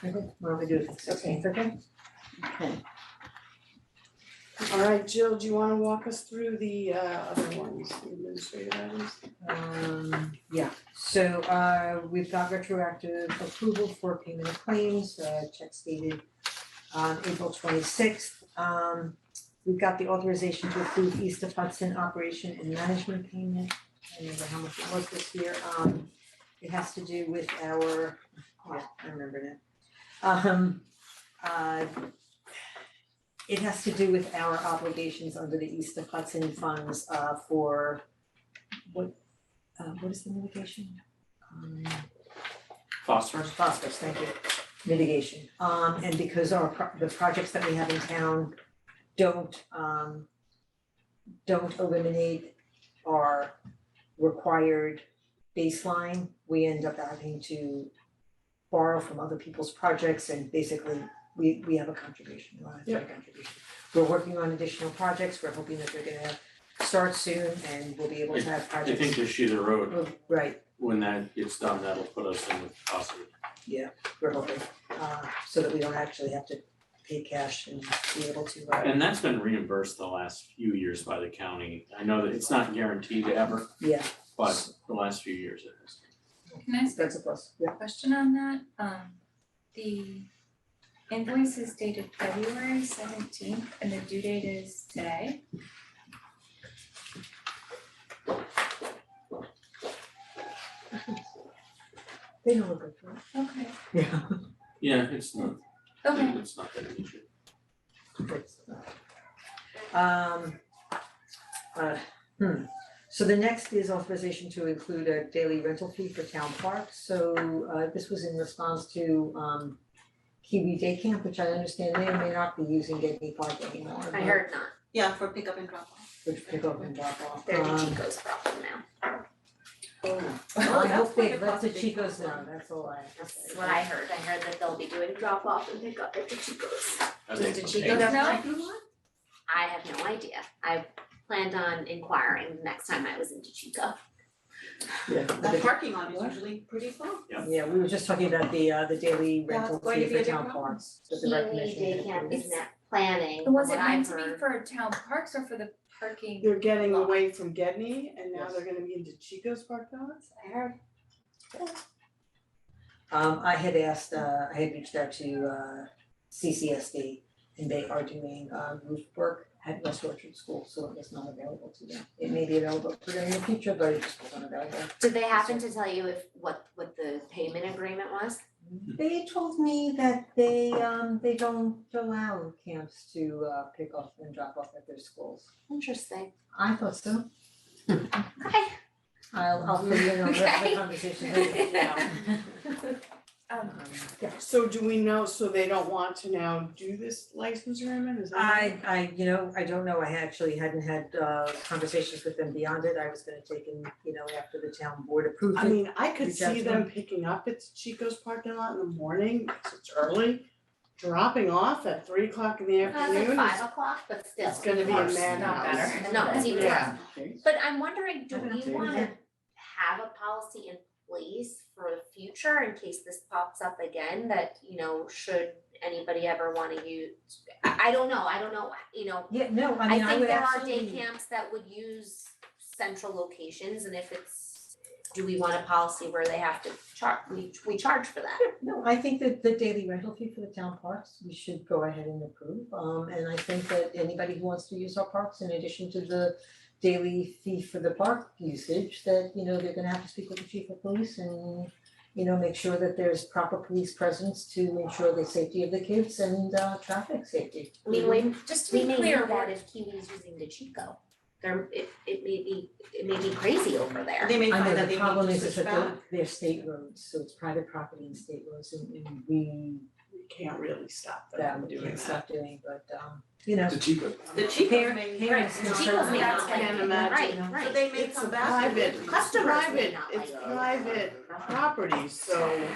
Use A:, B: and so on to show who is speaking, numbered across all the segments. A: Why don't we do it the sixteenth, okay?
B: Okay.
C: All right, Jill, do you wanna walk us through the uh other ones, the administrative items?
A: Um, yeah, so uh we've got retroactive approval for payment of claims, uh checks dated on April twenty sixth. Um we've got the authorization to approve East of Hudson operation and management payment. I don't remember how much it was this year, um it has to do with our, yeah, I remember now. Um uh it has to do with our obligations under the East of Hudson funds uh for uh what is the mitigation? Um
B: Phosphorus?
A: phosphorus, thank you, mitigation. Um and because our pro- the projects that we have in town don't um don't eliminate our required baseline, we end up having to borrow from other people's projects and basically we we have a contribution, we have a contribution. We're working on additional projects, we're hoping that they're gonna start soon and we'll be able to have
D: I
A: projects.
D: think this sheet of road,
A: Oh, Right,
D: when that gets done, that'll put us in the positive.
A: we're hoping, uh, so that we don't actually have to pay cash and be able to, uh,
D: And that's been reimbursed the last few years by the county. I know that it's not guaranteed ever,
A: yeah,
D: but the last few years it has.
E: Can I ask a
A: that's a plus, yeah.
E: question on that? Um, the invoice is dated February seventeenth and the due date is today.
A: They don't look good for it.
E: Okay.
A: Yeah.
D: Yeah, it's not,
E: Okay,
D: it's not that an issue.
A: Um, uh, hmm, so the next is authorization to include a daily rental fee for town parks, so, uh, this was in response to, um, Kiwi Day Camp, which I understand they may not be using Getney Park anymore,
F: I
A: but-
F: heard not,
G: Yeah, for pickup and drop off.
A: Which pick up and drop off,
F: they're the
A: Um,
F: Chico's problem now,
A: well, I hope they,
G: That's
A: Oh, that's the
G: a big
A: Chico's
G: problem.
A: now, that's all I.
F: that's what I heard, I heard that they'll be doing drop off and pick up at the Chico's.
D: That's
G: Does the
D: okay.
G: Chico
E: No.
G: have parking lot?
F: I have no idea, I planned on inquiring the next time I was in Chico.
A: Yeah.
G: That parking lot is usually pretty full.
A: Yeah, we were just talking about the uh the daily
G: That's
A: rental
G: going
A: fee
G: to be
A: for
G: a big
A: town
G: problem.
A: parks, but the recognition.
F: Kiwi Day Camp is not planning, from
E: was it
F: what I
E: meant to be
F: heard,
E: for town parks or for the parking?
C: They're getting away from Gedney and now
A: Yes.
C: they're gonna be into Chico's parking lot?
F: I heard
A: Um I had asked, uh I had reached out to uh CCSD and they are doing uh roof work at West Orchard School, so it was not available to them. It may be available to them in the future, but it just wasn't available.
F: did they happen to tell you if, what, what the payment agreement was?
A: They told me that they um they don't allow camps to uh pick off and drop off at their schools.
F: Interesting,
A: I thought so.
F: okay.
A: I'll I'll fill you in on the rest of the
F: Okay.
A: conversation later.
E: Um,
A: Um,
C: So do we know, so they don't want to now do this license agreement, is that?
A: I I, you know, I don't know, I actually hadn't had uh conversations with them beyond it, I was gonna take in, you know, after the town board approved
C: I
A: it.
C: mean, I could
A: Reach out
C: see
A: to
C: them picking up at Chico's parking lot in the morning, 'cause it's early, dropping off at three o'clock in the
F: I was like
C: afternoon,
F: five
C: it's,
F: o'clock, but still.
C: it's gonna be a
E: Worse,
C: madhouse.
E: not better.
F: No, it's even worse.
C: Yeah.
F: But I'm wondering, do
A: I don't
F: we
A: know.
F: wanna have a policy in place for the future in case this pops up again that, you know, should anybody ever wanna use? I I don't know, I don't know, you know,
A: Yeah, no, I
F: I
A: mean, I
F: think
A: would
F: there are
A: absolutely.
F: day camps that would use central locations and if it's, do we want a policy where they have to char- we we charge for that?
A: No, I think that the daily rental fee for the town parks, we should go ahead and approve, um and I think that anybody who wants to use our parks in addition to the daily fee for the park usage, that, you know, they're gonna have to speak with the chief of police and you know, make sure that there's proper police presence to ensure the safety of the kids and uh traffic safety.
F: I mean, we
E: Just to
F: we
E: be
F: may need
E: clear,
F: that
E: we're-
F: if Kiwi's using the Chico. There, it it may be, it may be crazy over there.
G: They may
A: I know
G: find that they
A: the
G: need
A: problem
G: to
A: is is
G: switch
A: that they're
G: back.
A: they're state roads, so it's private property and state roads and and we
C: We can't really stop them
A: that
C: from
A: we
C: doing
A: can't stop
C: that.
A: doing, but um, you know.
D: The Chico.
G: The Chico's may.
A: parents
F: The
A: can
F: Chico's
A: certainly-
F: may not
C: I
F: like
C: can't
F: it,
C: imagine.
F: right, right.
G: So they make
C: It's
G: some
C: private,
G: basketball.
C: it's
F: Customers may
C: private,
F: not
C: it's
F: like it.
C: private property, so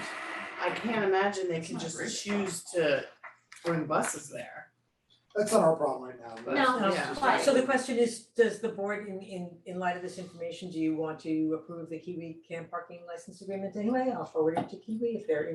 C: I can't imagine they can just choose to bring buses there.
H: That's not our problem right now, but.
F: No,
C: Yeah.
F: but
A: So the question is, does the board in in in light of this information, do you want to approve the Kiwi camp parking license agreement anyway? I'll forward it to Kiwi if they're